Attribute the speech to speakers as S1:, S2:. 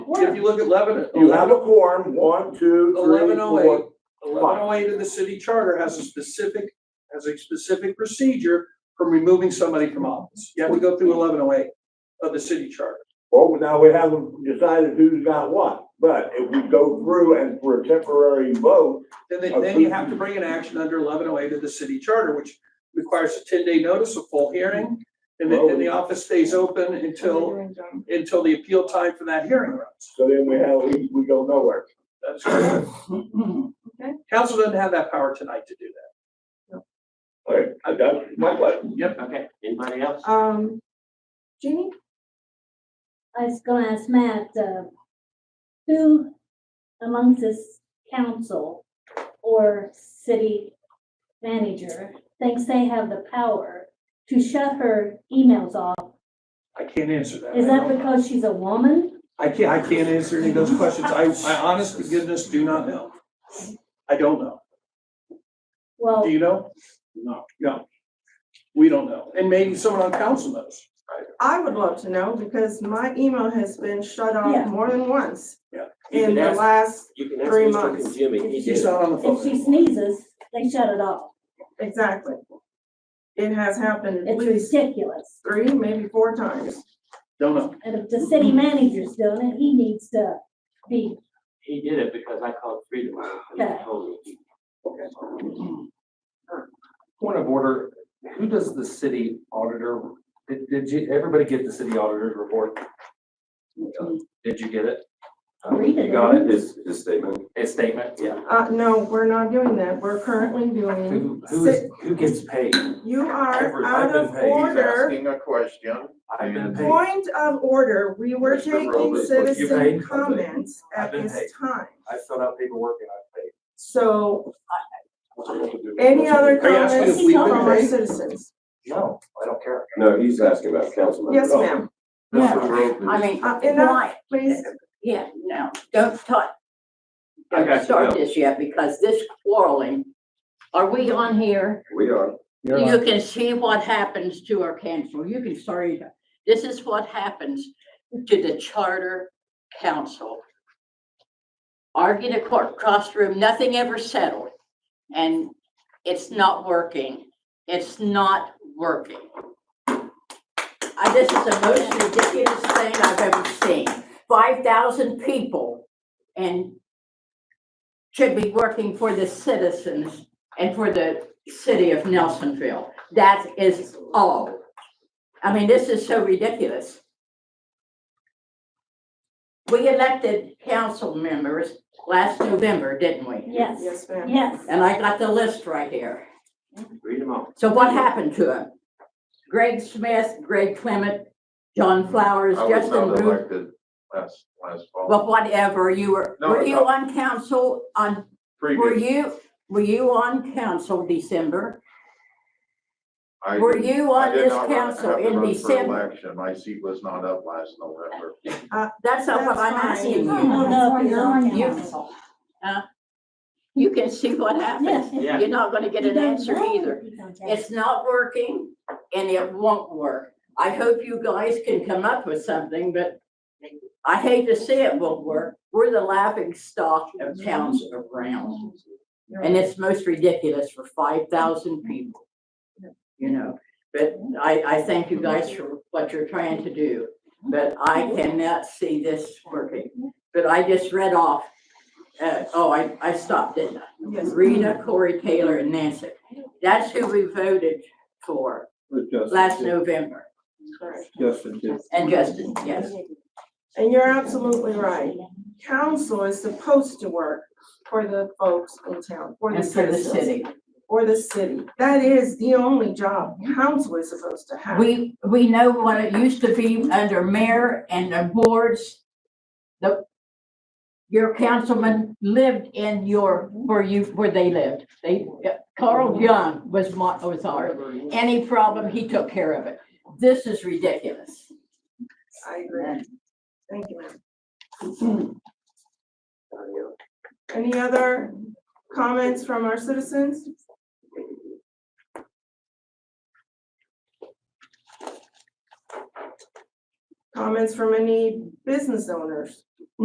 S1: if you look at Lebanon,
S2: You have a quorum, one, two, three,
S1: eleven oh eight,
S2: four.
S1: eleven oh eight of the city charter has a specific, has a specific procedure for removing somebody from office. You have to go through eleven oh eight of the city charter.
S2: Well, now we haven't decided who's got what, but if we go through and for a temporary vote,
S1: Then they, then you have to bring an action under eleven oh eight of the city charter, which requires a ten day notice, a full hearing. And then, and the office stays open until, until the appeal time for that hearing runs.
S2: so then we have, we, we go nowhere.
S1: That's correct. Council doesn't have that power tonight to do
S2: All right, I got my question.
S1: that. Yep.
S3: Okay, anybody else?
S4: Um, Jeannie?
S5: I was gonna ask Matt, uh, who amongst this council or city manager thinks they have the power to shut her emails off?
S1: I can't answer that.
S5: Is that because she's a woman?
S1: I can't, I can't answer any of those questions. I, I honest to goodness do not know. I don't know.
S5: Well,
S1: Do you know?
S3: No.
S1: No. We don't know. And maybe someone on council knows.
S4: I would love to know because my email has been shut
S5: Yeah.
S4: off more than once
S3: You
S4: in
S3: can
S4: the
S3: ask,
S4: last,
S3: you can ask
S4: three
S3: Mr.
S4: months.
S3: Conjimmy, he
S1: She's
S3: did.
S1: not on the phone.
S5: if she
S1: anymore.
S5: sneezes, they shut it off.
S4: exactly. It has happened at
S5: It's
S4: least
S5: ridiculous.
S4: three, maybe four times.
S1: Don't know.
S5: And if the city manager's doing it, he needs to be,
S3: He did it because I called Freedom House and
S5: Okay.
S3: they told me. he-
S6: Point of order, who does the city auditor, did, did you, everybody get the city auditor's report? Did you get it?
S5: Read it.
S6: You got it,
S7: His, his statement,
S6: a statement, yeah.
S4: Uh, no, we're not doing that. We're currently doing,
S6: Who, who is, who gets paid?
S4: you are
S6: Every-
S4: out
S6: I've been
S4: of
S6: paid. He's
S4: order.
S7: a question.
S6: I've been paid,
S4: Point of order, we were
S7: Mr.
S4: taking
S7: Robles, what
S6: you
S4: citizen
S6: paid?
S4: comments
S6: I've
S4: at
S6: been paid.
S4: this time.
S6: I filled out paperwork and I paid.
S4: So any other
S1: Are you asking
S4: comments
S5: if we've
S4: from
S5: been
S4: our
S1: paid?
S4: citizens?
S6: No, I don't care.
S7: No, he's asking about council members.
S4: Yes,
S3: Oh.
S4: ma'am.
S7: Mr. Robles.
S8: I mean,
S4: Uh, enough,
S8: why?
S4: please.
S8: Yeah, no, don't talk,
S3: I got
S8: don't
S3: you,
S8: start
S3: no.
S8: this yet, because this quarreling, are we on here?
S7: We are.
S8: You can see what happens to our council, you can start it. This is what happens to the charter council. Argue the court, cross room, nothing ever settled, and it's not working, it's not working. I, this is the most ridiculous thing I've ever seen, five thousand people, and should be working for the citizens and for the city of Nelsonville. That is all. I mean, this is so ridiculous. We elected council members last November, didn't we?
S5: yes,
S4: Yes, ma'am.
S5: yes.
S8: And I got the list right here.
S3: Read them all.
S8: So what happened to them? Greg Smith, Greg Clement, John Flowers,
S7: I was
S8: Justin
S7: not
S8: Root,
S7: elected last, last fall.
S8: but whatever, you were,
S7: No,
S8: were
S7: I'm
S8: you
S7: not.
S8: on council on, were
S7: Previous,
S8: you, were you on council December?
S7: I.
S8: Were you
S7: I
S8: on
S7: did
S8: this
S7: not run-
S8: council
S7: have to
S8: in
S7: run for
S8: December?
S7: Election, my seat was not up last November.
S8: That's not what I'm
S4: That's
S8: asking
S4: fine.
S8: you.
S5: no, you're on
S8: You- huh? You can see what happens.
S3: Yeah.
S8: You're not gonna get
S5: You
S8: an
S5: don't
S8: answer
S5: know.
S8: either.
S5: You don't
S8: It's not working and it won't work. I hope you guys can come up with something, but I hate to see it won't work. We're the laughing stock of towns around. And it's most ridiculous for five thousand people. You know, but I, I thank you guys for what you're trying to do, but I cannot see this working. But I just read off, uh, oh, I, I stopped, didn't I?
S4: Yes.
S8: Rita, Corey Taylor, and Nancy. That's who we voted for last November. And Justin, yes.
S4: And you're absolutely right. Council is supposed to work for the folks in town, for the
S8: And for the
S4: citizens,
S8: city.
S4: for the city. That is the only job council is supposed to have.
S8: We, we know what it used to be under mayor and the boards. The, your councilman lived in your, where you, where they lived. They, Carl Young was my, was our, any problem, he took care of it. This is ridiculous.
S4: I agree. Thank you, ma'am.
S8: Mm-hmm.
S4: Any other comments from our citizens? Comments from any business owners?